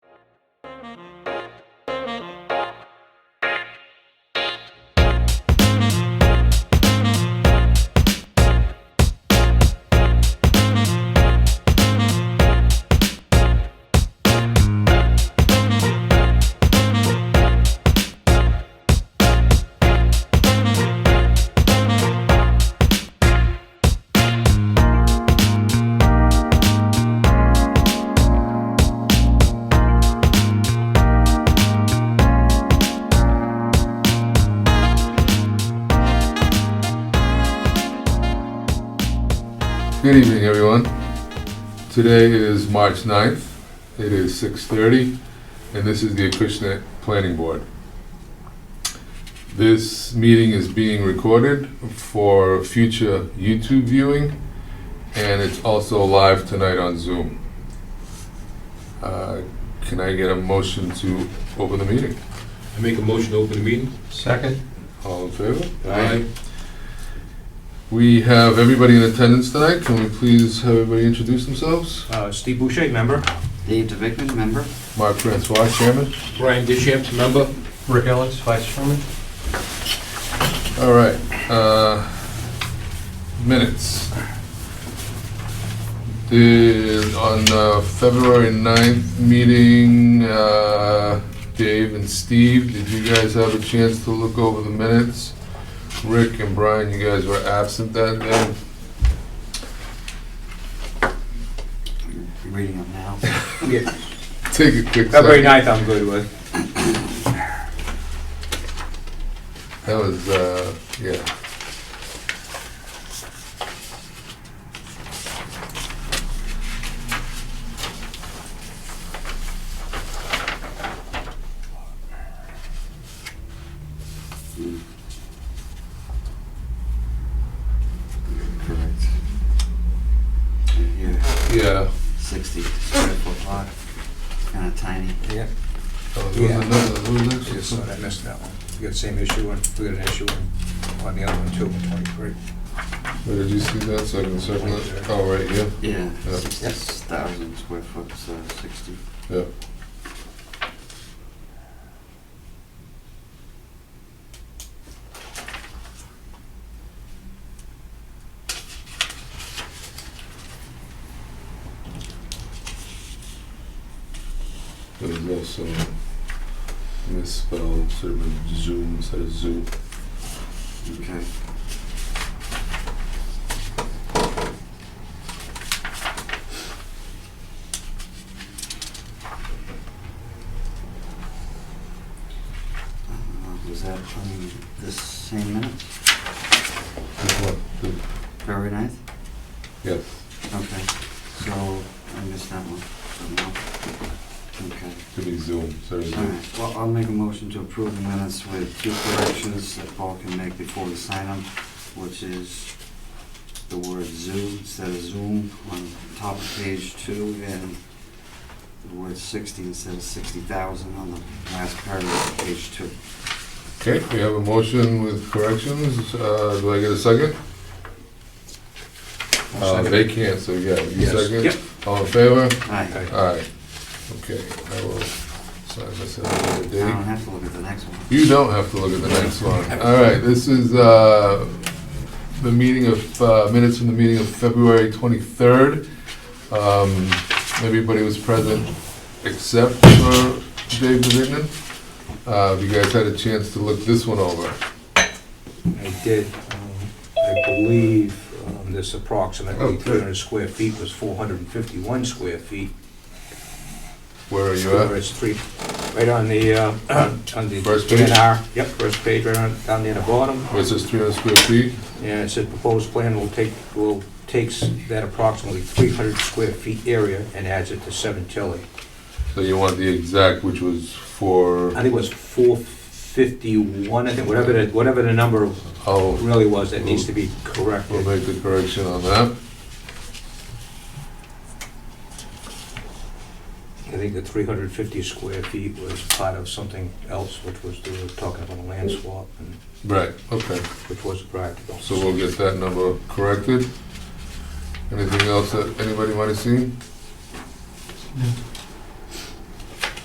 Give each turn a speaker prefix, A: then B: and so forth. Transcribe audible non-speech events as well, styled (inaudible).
A: Good evening, everyone. Today is March 9th. It is 6:30, and this is the Acushnet Planning Board. This meeting is being recorded for future YouTube viewing, and it's also live tonight on Zoom. Uh, Can I get a motion to open the meeting?
B: I make a motion to open the meeting.
C: Second?
A: All in favor? We have everybody in attendance tonight. Can we please have everybody introduce themselves?
D: Uh, Steve Boucher, member.
E: Dave DeVickman, member?
A: Mark Francois, Chairman.
B: Brian Dishamps, member.
C: Rick Ellis, Vice Chairman?
A: All right, uh, minutes. The, on uh, February 9th meeting, uh, Dave and Steve, did you guys have a chance to look over the minutes? Rick and Brian, you guys were absent that day. (laughs)
E: You're reading them now.
A: Take a quick
D: February
A: second.
D: 9th, I'm good with.
A: That was, uh, yeah.
E: Correct. And here,
A: Yeah.
E: 60 square foot lot, kind of tiny.
D: Yeah,
A: That was
D: Yeah.
A: another- that was
D: I
A: actually
D: just thought I missed that one. We got the same issue, and we got an issue on- on the other one too, 23.
A: Where did you see that? So I can circle it. Oh, right, yeah.
E: Yeah,
A: Yeah.
E: 60,000 square foot, so 60.
A: Yeah. There's also misspelled sort of zoom instead of zoo.
E: Okay. Uh, Uh, Was that from this same minute, February 9th?
A: Yes.
E: Okay, so I missed that one. No. Okay,
A: Could be zoom instead of
E: all
A: zoo.
E: right. Well, I'll make a motion to approve the minutes with two corrections that Paul can make before we sign them, which is the word zoo instead of zoom on top of page two and the word sixty instead of sixty thousand on the last paragraph of page two.
D: Ah.
A: Okay, we have a motion with corrections. Uh, do I get a second? Uh, they can't, so yeah, you
D: Yes.
A: second?
D: Yep.
A: All in favor?
E: Aye.
A: Aye. Okay, I will sign this at another
E: I don't
A: date.
E: have to look at the next one.
A: You don't have to look at the next one. All right, this is, uh, the meeting of, uh, minutes from the meeting of February twenty-third. Um, everybody was present except for Dave Bevington. Uh, if you guys had a chance to look this one over.
D: I did, um, I believe um, this approximately
A: Okay.
D: 300 square feet was 451 square feet.
A: Where are you
D: Where
A: at?
D: it's three, right on the, uh, (clears throat) on the.
A: First page?
D: DNR. Yep, first page, right on, down near the bottom.
A: Where it says three hundred square feet?
D: And it said proposed plan will take, will, takes that approximately 300 square feet area and adds it to 7 Tilly.
A: So you want the exact, which was for,
D: I think it was four fifty-one, I think, whatever the, whatever the number
A: I'll,
D: really was, that needs to be corrected.
A: oh, we'll make the correction on that.
D: I think the three hundred fifty square feet was part of something else, which was, they were talking about a land swap, and,
A: Right, okay.
D: which was practical.
A: So we'll get that number corrected. Anything else that anybody might have seen?
C: No.